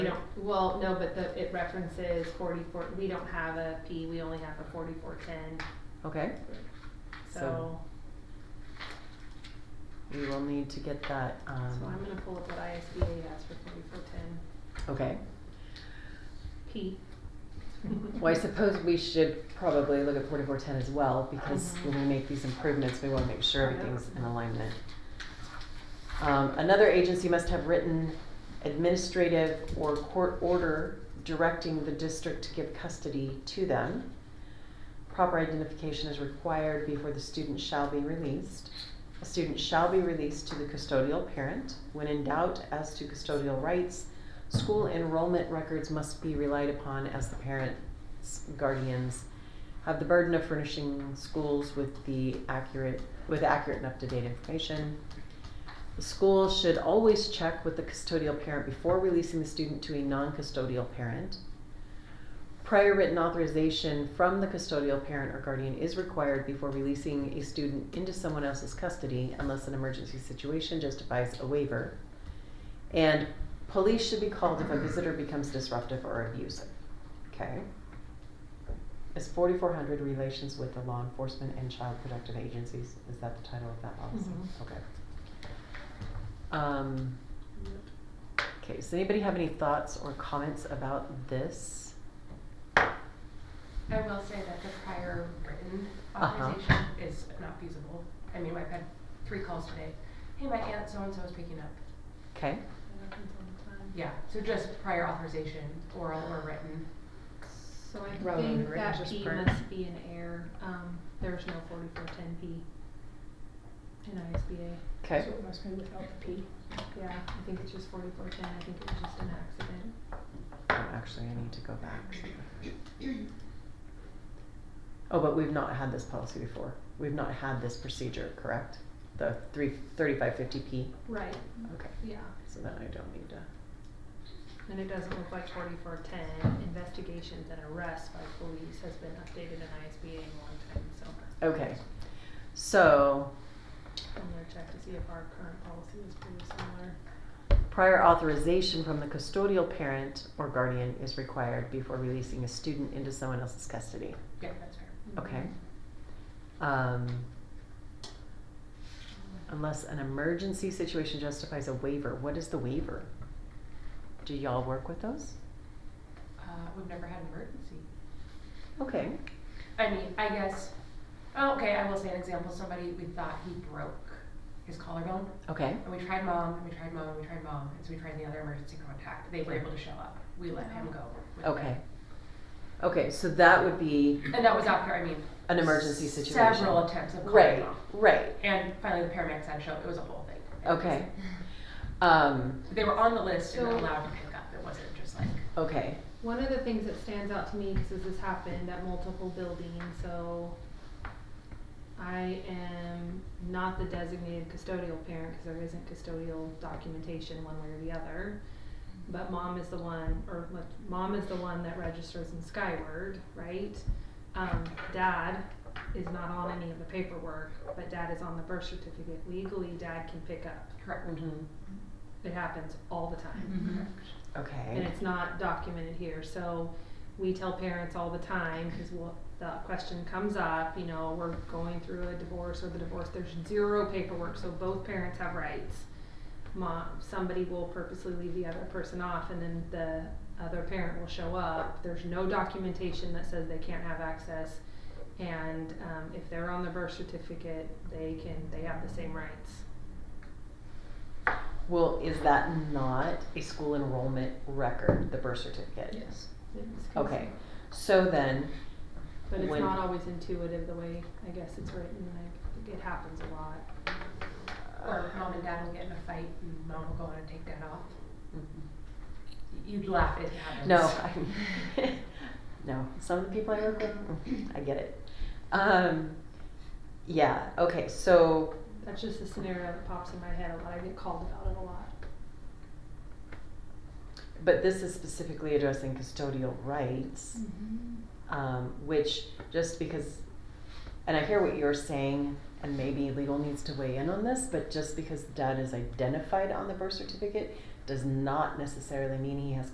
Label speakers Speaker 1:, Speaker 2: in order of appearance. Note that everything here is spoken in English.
Speaker 1: We don't, well, no, but the, it references forty-four, we don't have a P, we only have a forty-four ten,
Speaker 2: Okay,
Speaker 1: so,
Speaker 2: So- we will need to get that,
Speaker 1: so I'm
Speaker 2: um,
Speaker 1: gonna pull up what ISBA has for forty-four ten,
Speaker 2: okay.
Speaker 1: P.
Speaker 2: Well, I suppose we should probably look at forty-four ten as well, because
Speaker 1: Mm-hmm.
Speaker 2: when we make these improvements, we wanna make sure
Speaker 1: Yeah.
Speaker 2: everything's in alignment. Um, another agency must have written administrative or court order directing the district to give custody to them. Proper identification is required before the student shall be released. A student shall be released to the custodial parent. When in doubt as to custodial rights, school enrollment records must be relied upon as the parents, guardians have the burden of furnishing schools with the accurate, with accurate and up-to-date information. The school should always check with the custodial parent before releasing the student to a non-custodial parent. Prior written authorization from the custodial parent or guardian is required before releasing a student into someone else's custody unless an emergency situation justifies a waiver. And police should be called if a visitor becomes disruptive or abusive. Okay. Is forty-four hundred relations with the law enforcement and child protective agencies? Is that the title of that policy?
Speaker 1: Mhm.
Speaker 2: Okay. Um, okay, does anybody have any thoughts or comments about this?
Speaker 3: I will say that the prior written
Speaker 2: Uh-huh.
Speaker 3: authorization is not feasible. I mean, I've had three calls today. Hey, my aunt so-and-so is picking up.
Speaker 2: Okay,
Speaker 3: Yeah, so just prior authorization, oral or written.
Speaker 1: So I
Speaker 2: Rather than
Speaker 1: think
Speaker 2: written,
Speaker 1: that
Speaker 2: just
Speaker 1: P
Speaker 2: print.
Speaker 1: must be an error, um, there's no forty-four ten P in ISBA,
Speaker 2: okay,
Speaker 4: So it must be without the P.
Speaker 1: yeah, I think it's just forty-four ten, I think it was just an accident.
Speaker 2: Oh, actually, I need to go back. Oh, but we've not had this policy before. We've not had this procedure, correct? The three, thirty-five fifty P?
Speaker 1: Right,
Speaker 2: Okay,
Speaker 1: yeah.
Speaker 2: so then I don't need to.
Speaker 1: And it doesn't look like forty-four ten, investigations and arrests by police has been updated in ISBA in a long time, so.
Speaker 2: Okay, so
Speaker 1: I'm gonna check to see if our current policy is pretty similar.
Speaker 2: Prior authorization from the custodial parent or guardian is required before releasing a student into someone else's custody.
Speaker 3: Yeah, that's fair.
Speaker 2: Okay. Um, unless an emergency situation justifies a waiver, what is the waiver? Do y'all work with those?
Speaker 3: Uh, we've never had an emergency.
Speaker 2: Okay.
Speaker 3: I mean, I guess, oh, okay, I will say an example. Somebody, we thought he broke his collarbone.
Speaker 2: Okay.
Speaker 3: And we tried mom, and we tried mom, and we tried mom, and so we tried the other emergency contact. They were able to show up. We let him go. with him.
Speaker 2: Okay. Okay, so that would be
Speaker 3: And that was after, I mean.
Speaker 2: an emergency situation.
Speaker 3: Several attempts of calling
Speaker 2: Right,
Speaker 3: mom.
Speaker 2: right.
Speaker 3: And finally, the paramedics had to show up. It was a whole thing.
Speaker 2: Okay. Um,
Speaker 3: They were on the list and
Speaker 1: So-
Speaker 3: allowed to pick up. It wasn't just like.
Speaker 2: okay.
Speaker 1: One of the things that stands out to me, because this happened at multiple buildings, so I am not the designated custodial parent, because there isn't custodial documentation one way or the other. But mom is the one, or like, mom is the one that registers in Skyward, right? Um, dad is not on any of the paperwork, but dad is on the birth certificate. Legally, dad can pick up.
Speaker 3: Correct.
Speaker 2: Mhm.
Speaker 1: It happens all the time
Speaker 3: Mm-hmm.
Speaker 2: Okay.
Speaker 1: and it's not documented here, so we tell parents all the time, cause we'll, the question comes up, you know, we're going through a divorce or the divorce, there's zero paperwork, so both parents have rights. Mom, somebody will purposely leave the other person off and then the other parent will show up, there's no documentation that says they can't have access. And, um, if they're on the birth certificate, they can, they have the same rights.
Speaker 2: Well, is that not a school enrollment record, the birth certificate?
Speaker 4: Yes.
Speaker 2: Okay, so then,
Speaker 1: But it's
Speaker 2: When-
Speaker 1: not always intuitive the way I guess it's written. Like it happens a lot.
Speaker 3: Or mom and dad will get in a fight and mom will go in and take dad off.
Speaker 2: Mm-hmm.
Speaker 3: You'd laugh if it happens.
Speaker 2: no, I, no, some of the people I work with, mm, I get it. Um, yeah, okay, so,
Speaker 1: That's just a scenario that pops in my head a lot. I get called about it a lot.
Speaker 2: but this is specifically addressing custodial rights. um, which just because, and I hear what you're saying, and maybe legal needs to weigh in on this, but just because dad is identified on the birth certificate does not necessarily mean he has